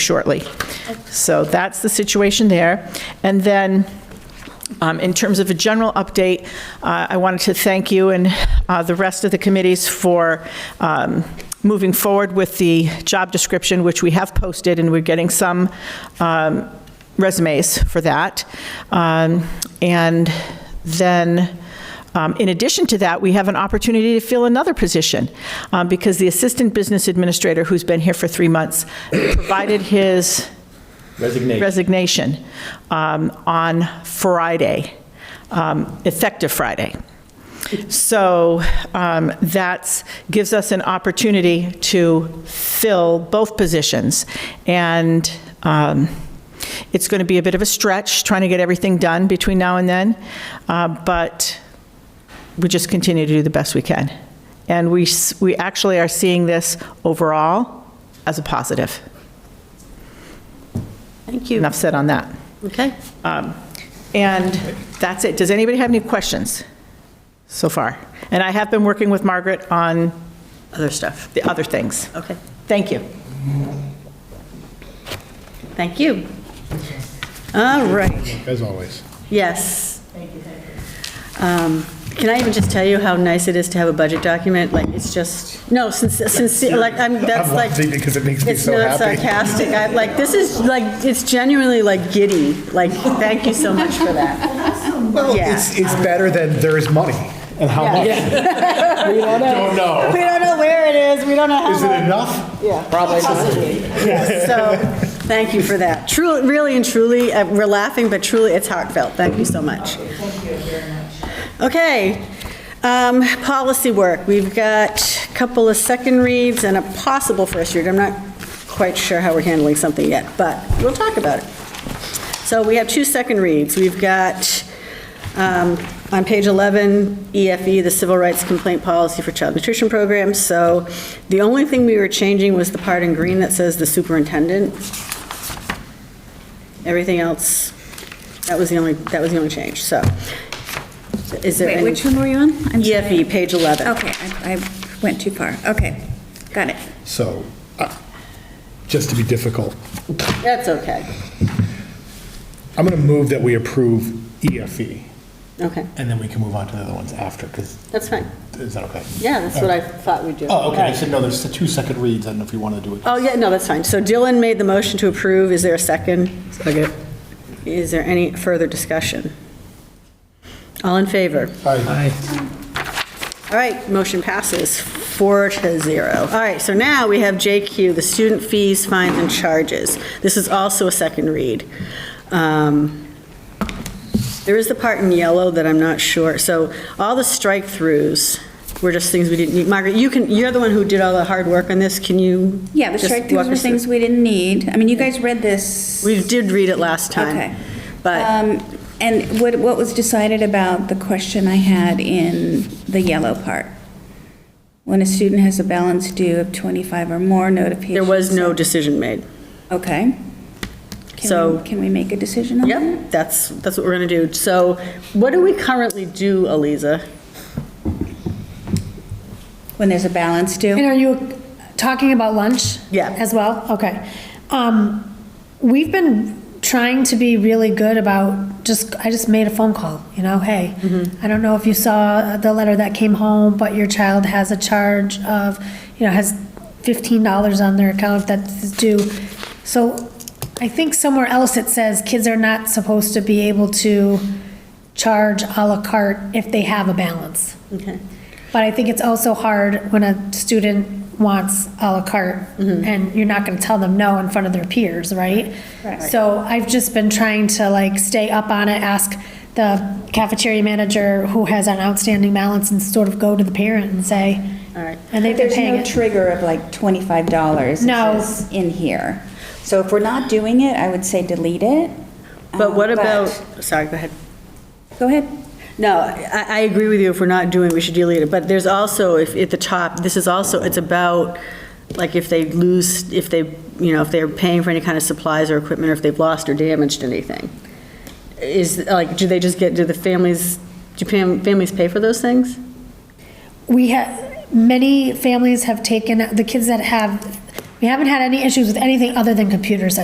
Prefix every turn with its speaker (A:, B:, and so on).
A: shortly. So that's the situation there. And then, um, in terms of a general update, uh, I wanted to thank you and uh, the rest of the committees for um, moving forward with the job description, which we have posted, and we're getting some um, resumes for that. Um, And then, um, In addition to that, we have an opportunity to fill another position, um, because the Assistant Business Administrator, who's been here for three months, provided his
B: Resignation.
A: resignation um, on Friday, um, effective Friday. So um, that gives us an opportunity to fill both positions. And um, it's going to be a bit of a stretch, trying to get everything done between now and then, uh, but we just continue to do the best we can. And we, s- we actually are seeing this overall as a positive.
C: Thank you.
A: Enough said on that.
C: Okay.
A: And that's it. Does anybody have any questions so far? And I have been working with Margaret on
C: Other stuff.
A: the other things.
C: Okay.
A: Thank you.
C: Thank you. All right.
D: As always.
C: Yes. Um, Can I even just tell you how nice it is to have a budget document? Like, it's just, no, since, since, like, I'm, that's
D: I'm
C: like.
D: laughing because it makes me so
C: It's not
D: happy.
C: sarcastic. I, like, this is, like, it's genuinely, like, giddy. Like, thank you so much for that.
D: Well,
C: Yeah.
D: it's, it's better than there is money. And how much? Don't know.
C: We don't know where it is. We don't know how
D: Is it enough?
C: So, thank you for that. Truly, really and truly, uh, we're laughing, but truly, it's heartfelt. Thank you so much. Thank you very much. Okay, um, policy work. We've got a couple of second reads and a possible first read. I'm not quite sure how we're handling something yet, but we'll talk about it. So we have two second reads. We've got, um, on page 11, EFE, E, the Civil Rights Complaint Policy for Child Nutrition Programs. So the only thing we were changing was the part in green that says the superintendent. Everything else, that was the only, that was the only change, so. Is there
E: Wait,
C: any?
E: which one Oh. were you on? I'm sorry.
C: EFE, E page 11.
E: Okay, I I went too far. Okay, got it.
D: So, uh, just to be difficult,
C: That's okay.
D: I'm going to move that we approve EFE,
C: Okay,
D: and then we can move on to the other ones after, because,
C: that's fine.
D: is that okay?
C: Yeah, that's what I thought we'd do.
D: Oh, okay, I said, no, there's the two second reads, I don't know if you want to do it.
C: Oh, yeah, no, that's fine. So Dylan made the motion to approve. Is there a second? Second. Is there any further discussion? All in favor?
D: Aye.
C: All right, motion passes four to zero. All right, so now we have JQ, the student fees, fines, and charges. This is also a second read. Um, There is the part in yellow that I'm not sure. So all the strike-throughs were just things we didn't need. Margaret, you can, you're the one who did all the hard work on this. Can you?
E: Yeah, the
C: just
E: strike
C: walk
E: throughs were
C: us through?
E: things we didn't need. I mean, you guys read this.
C: We did read it last time.
E: Okay.
C: But,
E: Um, And what, what was decided about the question I had in the yellow part? When a student has a balance due of 25 or more notifications.
C: There was no decision made.
E: Okay. Can
C: So-
E: we- Can we make a decision on that?
C: Yep, that's, that's what we're going to do. So what do we currently do, Aliza?
E: When there's a balance due?
F: And are you talking about lunch?
C: Yeah.
F: As well? Okay. Um, we've been trying to be really good about just, I just made a phone call, you know, hey,
C: Mm-hmm.
F: I don't know if you saw the letter that came home, but your child has a charge of, you know, has fifteen dollars on their account that's due. So I think somewhere else it says kids are not supposed to be able to charge à la carte if they have a balance.
C: Okay.
F: But I think it's also hard when a student wants à la carte
C: Mm-hmm.
F: and you're not going to tell them no in front of their peers, right?
E: Right.
F: So I've just been trying to like stay up on it, ask the cafeteria manager who has an outstanding balance and sort of go to the parent and say,
C: All right.
F: and they've been
E: There's
F: paying
E: no
F: it.
E: trigger of like twenty-five dollars.
F: No.
E: In here. So if we're not doing it, I would say delete it.
C: Uh, But
E: Um,
C: what about, sorry, go ahead.
E: Go ahead.
C: No, I, I agree with you, if we're not doing, we should delete it, but there's also, if, at the top, this is also, it's about, like, if they lose, if they, you know, if they're paying for any kind of supplies or equipment, or if they've lost or damaged anything. Is, like, do they just get, do the families, do fam- families pay for those things?
F: We have, many families have taken, the kids that have We haven't had any issues with anything other than computers at